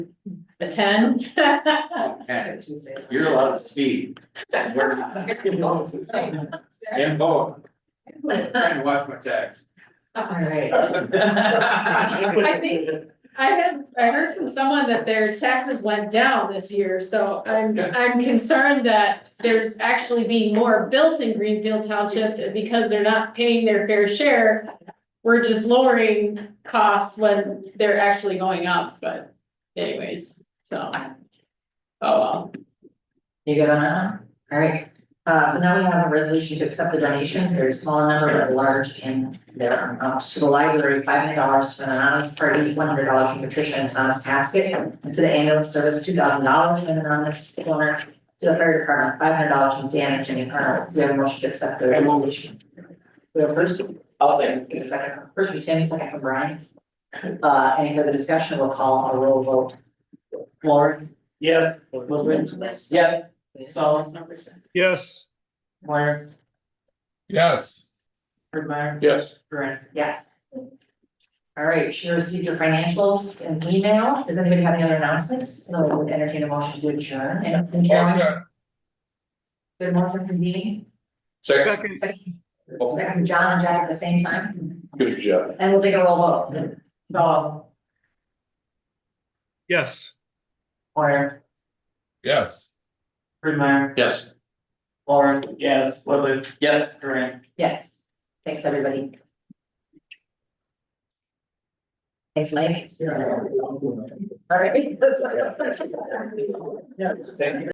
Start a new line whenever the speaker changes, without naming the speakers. attend.
Okay. You're allowed to speak. We're not. And vote. Trying to watch my text.
Alright. I think, I have, I heard from someone that their taxes went down this year, so I'm, I'm concerned that there's actually being more built in Greenfield Township and because they're not paying their fair share. We're just lowering costs when they're actually going up, but anyways, so. Oh, well,
You good on that? one? All right, uh, so now we have a resolution to accept the donations, there's a small number, but large in there, um, to the library, five hundred dollars from an anonymous party, one hundred dollars from Patricia and Thomas Casket. And to the ambulance service, two thousand dollars from an anonymous donor, to the third department, five hundred dollars from Dan and Jenny Carter, we have a motion to accept the donations. We have first, I'll say, second, first from Tammy, second from Brian. Uh, any further discussion, we'll call a roll vote. Lauren?
Yeah.
Yes.
Solid.
yes,
Warren?
yes,
Brittmeyer?
Yes.
Yes. All right, she received your financials and email. Does anybody have any other announcements? No, we would entertain a motion to adjourn and and Carolyn,
motion,
good motion from Dean.
Second,
second,
Second from John and Jack at the same time,
good job.
and we'll take a roll vote. So,
yes.
Warner,
yes.
Brittmeyer,
Yes.
Lauren,
Yes. Woodland. Yes. Grant.
yes. Thanks, everybody. Thanks, Mike. All right.
Thank you.